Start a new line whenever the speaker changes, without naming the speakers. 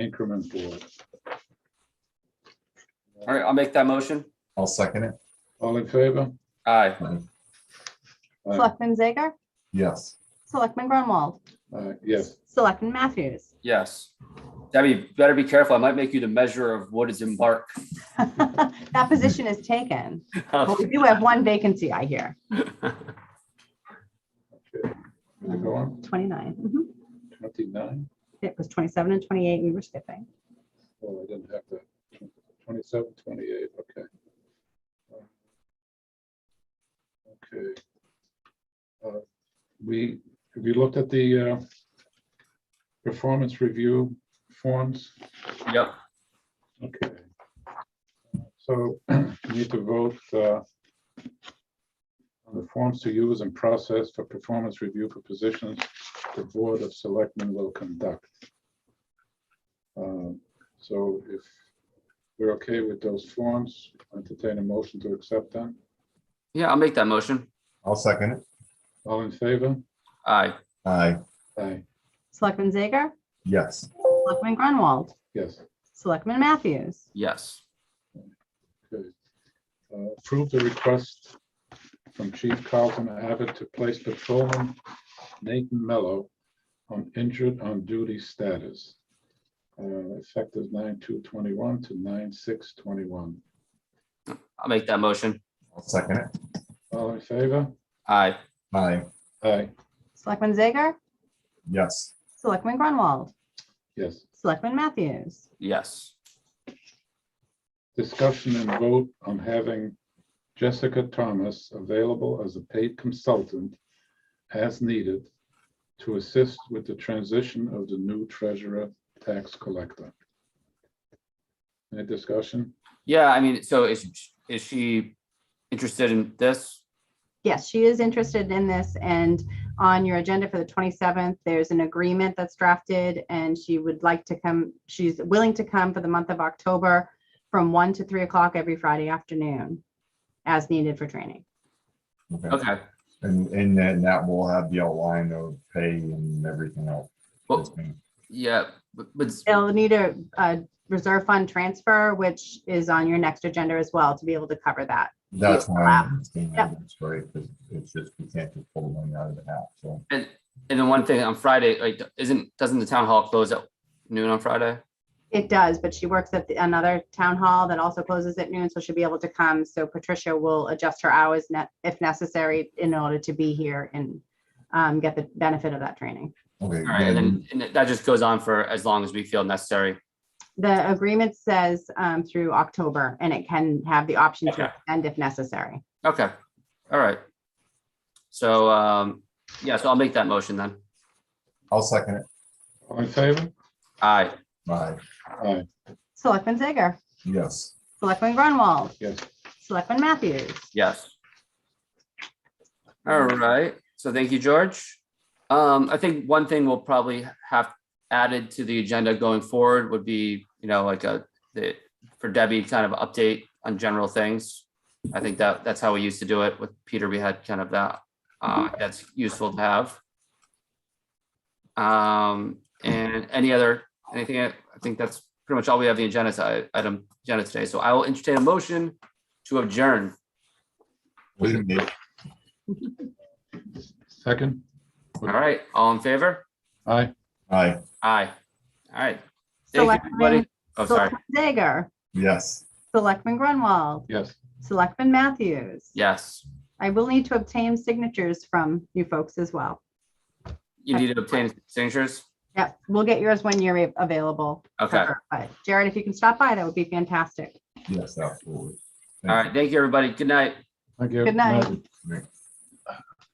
increment board.
All right, I'll make that motion.
I'll second it.
All in favor?
Aye.
Aye.
Selectman Zager?
Yes.
Selectman Grunwald?
Uh, Yes,
Selectman Matthews?
Yes. Debbie, better be careful. I might make you the measure of what is in bark.
That position is taken. But we do have one vacancy, I hear.
Is it going?
29. Mhm.
twenty-nine,
It was 27 and 28, we were skipping.
oh, I didn't have that, twenty-seven, twenty-eight, okay. Okay. Uh, We, have you looked at the uh, performance review forms?
Yep.
Okay. So you need to vote uh, on the forms to use and process for performance review for positions the Board of Selectmen will conduct. Um, So if we're okay with those forms, entertain a motion to accept them.
Yeah, I'll make that motion.
I'll second it.
All in favor?
Aye.
Aye.
Aye.
Selectman Zager?
Yes.
Selectman Grunwald?
Yes.
Selectman Matthews?
Yes.
Okay. Uh, Approve the request from Chief Carlton Abbott to place patrolman Nathan Mello on injured on duty status. uh, Effective nine two twenty-one to nine six twenty-one.
I'll make that motion.
I'll second it.
All in favor?
Aye.
Aye.
Aye,
Selectman Zager?
Yes.
Selectman Grunwald?
yes.
Selectman Matthews?
Yes.
Discussion and vote on having Jessica Thomas available as a paid consultant as needed to assist with the transition of the new treasurer tax collector. Any discussion?
Yeah, I mean, so is, is she interested in this?
Yes, she is interested in this and on your agenda for the 27th, there's an agreement that's drafted and she would like to come, she's willing to come for the month of October from 1 to 3 o'clock every Friday afternoon as needed for training.
Okay.
Okay.
And, and then that will have the outline of pay and everything else.
Well, yeah, but, but
They'll need a, a reserve fund transfer, which is on your next agenda as well to be able to cover that.
That's why
Wow.
I'm saying
Yep.
that's right, because it's just, we can't just pull money out of the hat, so.
and, and then one thing on Friday, like, isn't, doesn't the town hall close at noon on Friday?
It does, but she works at the- another town hall that also closes at noon, so she'll be able to come. So Patricia will adjust her hours ne- if necessary in order to be here and um, get the benefit of that training.
Okay.
All right, and
then-
then, and that just goes on for as long as we feel necessary.
The agreement says um, through October, and it can have the option to
Okay.
extend if necessary.
Okay, all right. So, um, yeah, so I'll make that motion then.
I'll second it.
All in favor?
Aye,
Aye.
Aye,
Selectman Zager,
Yes.
Selectman Grunwald,
yes.
Selectman Matthews.
yes. All right, so thank you, George. Um, I think one thing we'll probably have added to the agenda going forward would be, you know, like a, the, for Debbie, kind of update on general things. I think that, that's how we used to do it with Peter. We had kind of that, uh, that's useful to have. Um, and any other, anything, I I think that's pretty much all we have the agenda, si- item, agenda today. So I will entertain a motion to adjourn.
We can make-
Second?
All right, all in favor?
Aye,
Aye,
Aye. All right. Thank you,
Selectman
everybody. Oh, sorry.
Selectman Zager,
yes.
Selectman Grunwald,
yes.
Selectman Matthews.
Yes,
I will need to obtain signatures from you folks as well.
you need to obtain signatures.
Yep, we'll get yours when you're a- available. for
Okay.
her, But Jared, if you can stop by, that would be fantastic.
Yes, absolutely.
All right, thank you, everybody. Good night.
Thank you.
Good night.
Thank you.